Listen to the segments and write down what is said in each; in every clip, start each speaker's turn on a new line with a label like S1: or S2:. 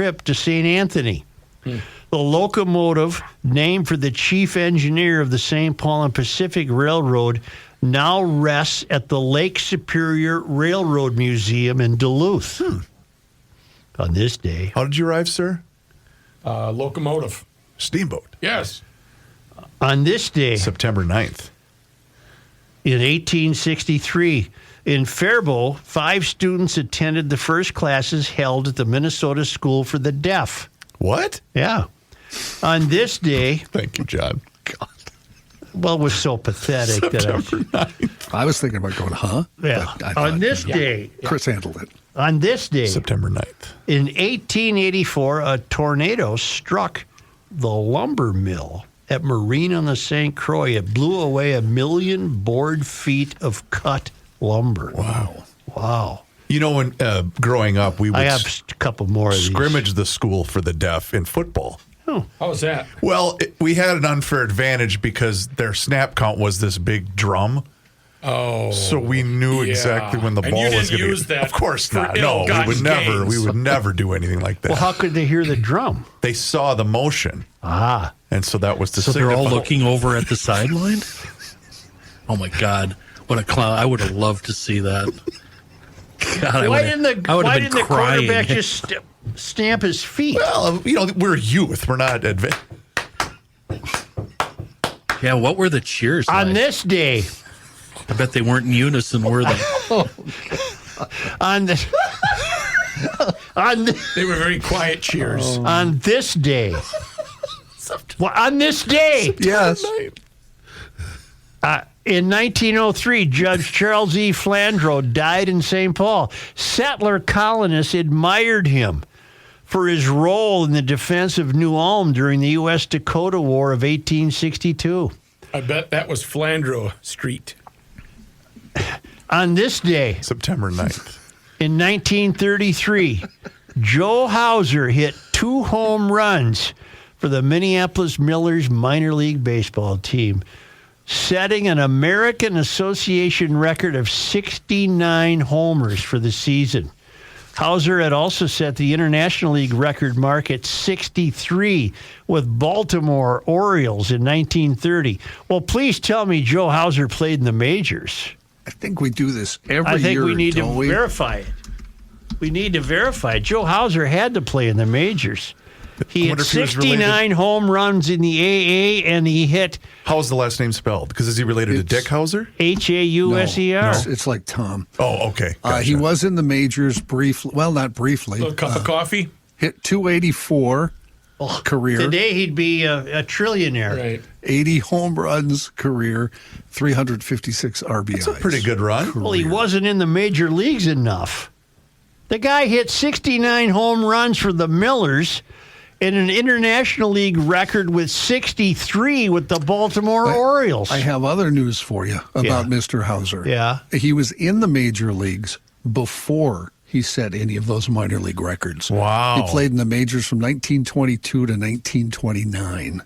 S1: trip to St. Anthony. The locomotive, named for the chief engineer of the St. Paul and Pacific Railroad, now rests at the Lake Superior Railroad Museum in Duluth. On this day,
S2: How did you arrive, sir?
S3: Uh, locomotive.
S2: Steamboat.
S3: Yes.
S1: on this day,
S2: September 9th.
S1: In 1863, in Faribault, five students attended the first classes held at the Minnesota School for the Deaf.
S2: What?
S1: Yeah. On this day,
S2: Thank you, John.
S1: well, it was so pathetic that
S4: I was thinking about going, huh?
S1: I, yeah.
S4: But I thought,
S1: on this
S4: you know,
S1: day,
S4: Chris handled it.
S1: on this day,
S2: September 9th.
S1: in 1884, a tornado struck the lumber mill at Marine on the St. Croix. It blew away a million board feet of cut lumber.
S2: Wow.
S1: Wow.
S2: You know, when uh, growing up, we would
S1: I have
S2: s-
S1: a couple more of these.
S2: scrimmage the school for the deaf in football.
S3: How's that?
S2: Well, it, we had an unfair advantage because their snap count was this big drum.
S3: Oh.
S2: So we knew
S3: yeah.
S2: exactly when the
S3: And
S2: ball
S3: you
S2: was
S3: didn't
S2: going to
S3: use that
S2: Of course
S3: for
S2: not. No, we would
S3: ill-gotten
S2: never. We
S3: gains.
S2: would never do anything like that.
S1: Well, how could they hear the drum?
S2: they saw the motion,
S1: Ah,
S2: and so that was to
S4: So they're all
S2: signify-
S4: looking over at the sideline? Oh my God. What a clown. I would have loved to see that. God, I
S1: why
S4: would've-
S1: didn't the
S4: I would've
S1: why
S4: been
S1: didn't the
S4: crying.
S1: quarterback just st- stamp his feet?
S2: Well, you know, we're youth. We're not advanced.
S4: Yeah, what were the cheers?
S1: On
S4: like?
S1: this day,
S4: I bet they weren't in unison, were they?
S1: on the on th-
S3: They were very quiet cheers.
S1: on this day, well, on this day
S2: Yes.
S1: in 1903, Judge Charles E. Flandreau died in St. Paul. Settler colonists admired him for his role in the defense of New Ulm during the U.S. Dakota War of 1862.
S3: I bet that was Flandreau Street.
S1: On this day,
S2: September 9th.
S1: In 1933, Joe Hauser hit two home runs for the Minneapolis Millers minor league baseball team, setting an American Association record of 69 homers for the season. Hauser had also set the International League record mark at 63 with Baltimore Orioles in 1930. Well, please tell me Joe Hauser played in the majors.
S4: I think we do this every
S1: I think
S4: year.
S1: we need to
S4: don't we?
S1: verify it. We need to verify it. Joe Hauser had to play in the majors. He had
S2: wonder if he was related-
S1: 69 home runs in the AA, and he hit
S2: How's the last name spelled? Because is he related to
S4: It's-
S2: Dick Hauser?
S1: H A U
S4: No,
S1: S E R.
S4: It's, it's like Tom.
S2: Oh, okay.
S4: Uh, he
S2: Gotcha.
S4: was in the majors briefly. Well, not briefly.
S1: Oh,
S3: Little cup
S4: Uh,
S3: of coffee.
S4: hit 284 career,
S1: Oh, Today he'd be a, a trillionaire.
S3: Right.
S4: 80 home runs career, 356 RBIs.
S2: That's a pretty good run.
S1: Well, he wasn't in the major leagues enough. The guy hit 69 home runs for the Millers in an International League record with 63 with the Baltimore Orioles.
S4: I have other news for you about
S1: Yeah.
S4: Mr. Hauser.
S1: Yeah.
S4: He was in the major leagues before he set any of those minor league records.
S2: Wow.
S4: He played in the majors from 1922 to 1929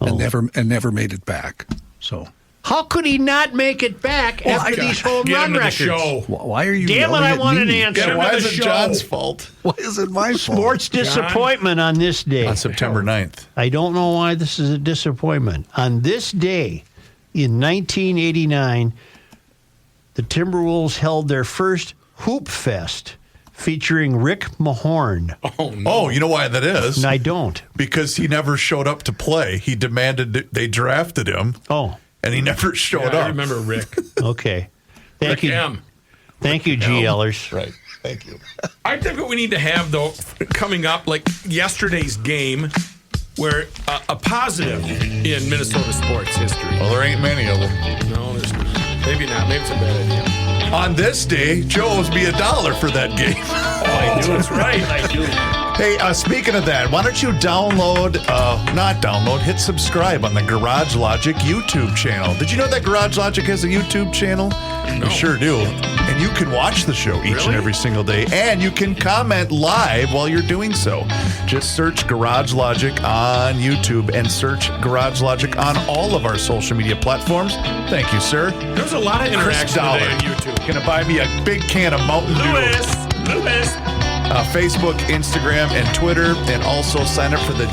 S1: Oh.
S4: and never and never made it back. So
S1: How could he not make it back
S4: Well,
S1: after
S4: I-
S1: these home
S3: Get
S1: run
S3: into the
S1: records?
S3: show.
S4: wh- why are you
S1: Damn it,
S4: yelling
S1: I
S4: at
S1: want an
S4: me?
S1: answer.
S2: Yeah, why
S3: Another
S2: is it
S3: show.
S2: John's fault?
S4: Why is it my fault?
S1: Sports disappointment on this day.
S2: On Uh, September 9th.
S1: I don't know why this is a disappointment. On this day in 1989, the Timberwolves held their first Hoop Fest featuring Rick Mahorn.
S2: Oh, you know why that is?
S1: And I don't.
S2: Because he never showed up to play. He demanded that they drafted him,
S1: Oh,
S2: and he never showed
S3: Yeah, I
S2: up.
S3: remember Rick.
S1: okay. Thank
S3: Rick
S1: you.
S3: M.
S1: Thank you, GLers.
S2: Right. Thank you.
S3: I think what we need to have though, coming up like yesterday's game, where uh, a positive in Minnesota sports history.
S2: Well, there ain't many of them.
S3: No, there's maybe not. Maybe it's a bad idea.
S2: On this day, Joe owes me a dollar for that game.
S3: Oh, I do. That's right. I do.
S2: Hey, uh, speaking of that, why don't you download, uh, not download, hit subscribe on the Garage Logic YouTube channel. Did you know that Garage Logic has a YouTube channel? You sure do. And you can watch the show each and
S3: Really?
S2: every single day, and you can comment live while you're doing so. Just search Garage Logic on YouTube and search Garage Logic on all of our social media platforms. Thank you, sir.
S3: There's a lot of
S2: Chris
S3: interaction
S2: Dollar.
S3: today on YouTube.
S2: Gonna buy me a big can of Mountain Dew.
S3: Lewis, Lewis,
S2: uh, Facebook, Instagram, and Twitter, and also sign up for the